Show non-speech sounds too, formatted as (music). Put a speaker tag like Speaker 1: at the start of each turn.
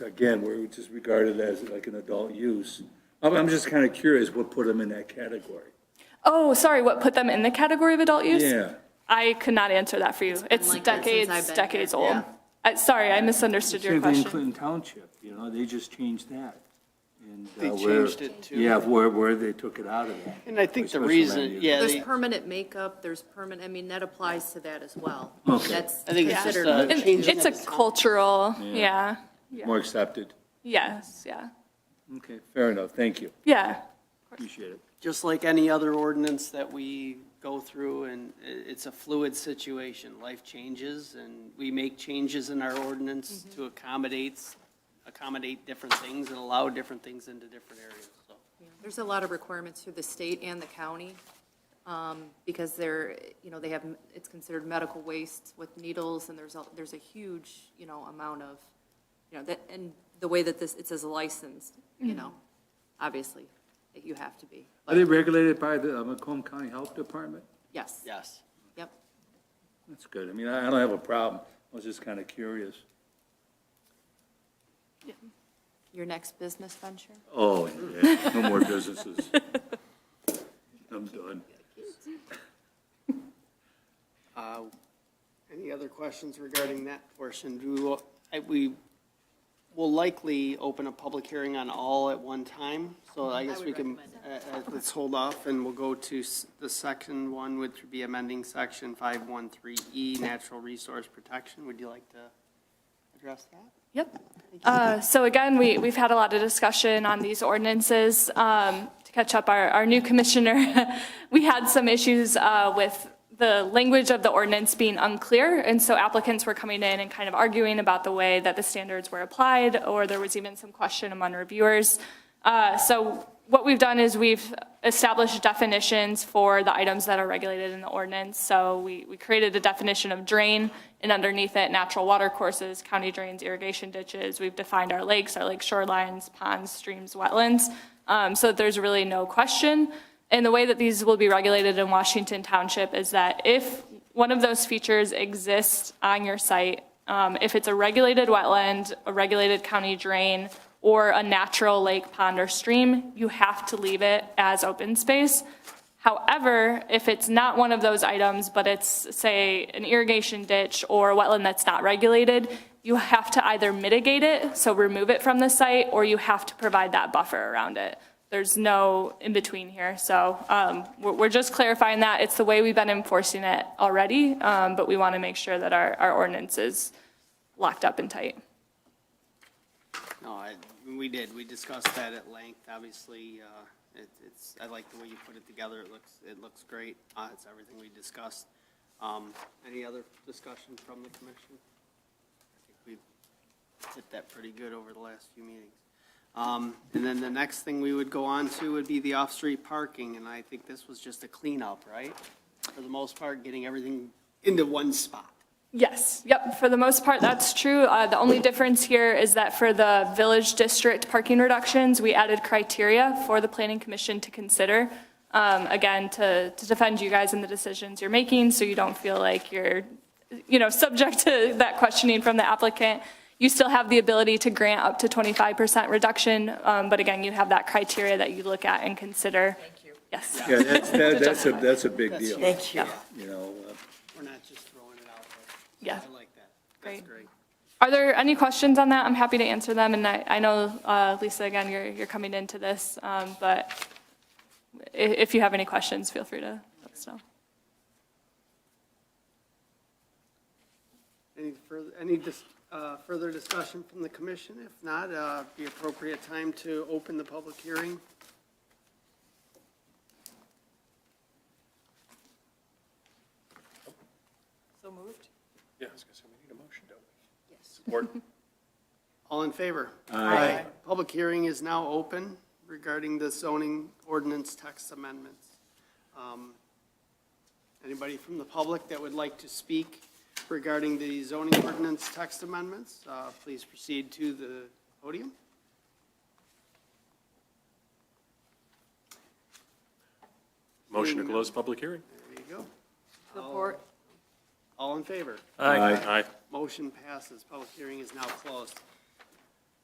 Speaker 1: again, where it's just regarded as like an adult use. I'm, I'm just kind of curious what put them in that category.
Speaker 2: Oh, sorry, what put them in the category of adult use?
Speaker 1: Yeah.
Speaker 2: I could not answer that for you. It's
Speaker 3: like that since I've
Speaker 2: decades,
Speaker 3: been
Speaker 2: decades
Speaker 3: here,
Speaker 2: old.
Speaker 3: yeah.
Speaker 2: I- Sorry, I misunderstood your
Speaker 1: Same thing in
Speaker 2: question.
Speaker 1: Clinton Township, you know, they just changed that. And, uh,
Speaker 4: They
Speaker 1: where-
Speaker 4: changed it to-
Speaker 1: Yeah, where, where they took it out of that.
Speaker 4: And I think the
Speaker 1: Special land
Speaker 4: reason,
Speaker 1: use.
Speaker 4: yeah,
Speaker 3: There's
Speaker 4: they-
Speaker 3: permanent makeup, there's permanent, I mean, that applies to that as well.
Speaker 1: Okay.
Speaker 3: That's
Speaker 4: I think it's
Speaker 3: considered.
Speaker 4: just, uh,
Speaker 2: And
Speaker 4: Changes
Speaker 2: It's a cultural, yeah,
Speaker 1: more accepted.
Speaker 2: yes, yeah,
Speaker 1: Okay, fair enough, thank you,
Speaker 2: yeah.
Speaker 1: appreciate it.
Speaker 4: just like any other ordinance that we go through, and i- it's a fluid situation. Life changes, and we make changes in our ordinance to accommodate, accommodate different things and allow different things into different areas, so.
Speaker 3: There's a lot of requirements through the state and the county, um, because they're, you know, they have, it's considered medical waste with needles, and there's, a there's a huge, you know, amount of, you know, that, and the way that this, it says licensed, you know, obviously, that you have to be.
Speaker 1: Are they regulated by the uh, Macomb County Health Department?
Speaker 3: Yes,
Speaker 4: Yes.
Speaker 3: yep.
Speaker 1: That's good, I mean, I I don't have a problem, I was just kind of curious.
Speaker 3: Your next business venture?
Speaker 1: Oh, yeah, no more (laughs) businesses. I'm done.
Speaker 4: Uh, Any other questions regarding that portion? Do we, wa- I- we will likely open a public hearing on all at one time, so I guess
Speaker 3: would
Speaker 4: we can, uh, uh, let's hold off, and we'll go to s- the second one, which would be amending section 513E, E, natural resource protection. Would you like to address that?
Speaker 2: Yep. Uh, So again, we, we've had a lot of discussion on these ordinances. Um, To catch up, our, our new commissioner, (laughs) we had some issues uh, with the language of the ordinance being unclear, and so applicants were coming in and kind of arguing about the way that the standards were applied, or there was even some question among reviewers. Uh, So what we've done is we've established definitions for the items that are regulated in the ordinance. So we, we created a definition of drain, and underneath it, natural water courses, county drains, irrigation ditches. We've defined our lakes, our lake shorelines, ponds, streams, wetlands, um, so that there's really no question. And the way that these will be regulated in Washington Township is that if one of those features exists on your site, um, if it's a regulated wetland, a regulated county drain, or a natural lake, pond, or stream, you have to leave it as open space. However, if it's not one of those items, but it's, say, an irrigation ditch or a wetland that's not regulated, you have to either mitigate it, so remove it from the site, or you have to provide that buffer around it. There's no in-between here, so um, we're we're just clarifying that. It's the way we've been enforcing it already, um, but we want to make sure that our our ordinance is locked up and tight.
Speaker 4: No, I, we did, we discussed that at length, obviously, uh, it, it's, I like the way you put it together, it looks, it looks great, uh, it's everything we discussed. Um, any other discussion from the commission? I think we hit that pretty good over the last few meetings. Um, and then the next thing we would go on to would be the off-street parking, and I think this was just a cleanup, right? For the most part, getting everything into one spot.
Speaker 2: Yes, yep, for the most part, that's true. Uh, The only difference here is that for the village district parking reductions, we added criteria for the planning commission to consider. Um, Again, to, to defend you guys in the decisions you're making, so you don't feel like you're, you know, subject to that questioning from the applicant. You still have the ability to grant up to 25% reduction, um, but again, you have that criteria that you look at and consider. Thank you. Yes.
Speaker 1: Yeah, that's, that- that's a, that's a big deal,
Speaker 5: Thank you.
Speaker 1: you know, uh,
Speaker 4: We're not just throwing it out there.
Speaker 2: Yeah.
Speaker 4: I like that. That's
Speaker 2: Great.
Speaker 4: great.
Speaker 2: Are there any questions on that? I'm happy to answer them, and I, I know, uh, Lisa, again, you're, you're coming into this, um, but i- if you have any questions, feel free to let us know.
Speaker 4: Any further, any dis- uh, further discussion from the commission? If not, uh, be appropriate time to open the public hearing.
Speaker 5: So moved?
Speaker 6: Yeah, I was gonna say, we need a motion, don't we?
Speaker 4: All in favor?
Speaker 5: Aye.
Speaker 4: Public hearing is now open regarding the zoning ordinance text amendments. Um, Anybody from the public that would like to speak regarding the zoning ordinance text amendments, uh, please proceed to the podium.
Speaker 6: Motion to close public hearing.
Speaker 4: There you go.
Speaker 3: Support.
Speaker 4: All in favor?
Speaker 6: Aye. Aye.
Speaker 4: Motion passes. Public hearing is now closed.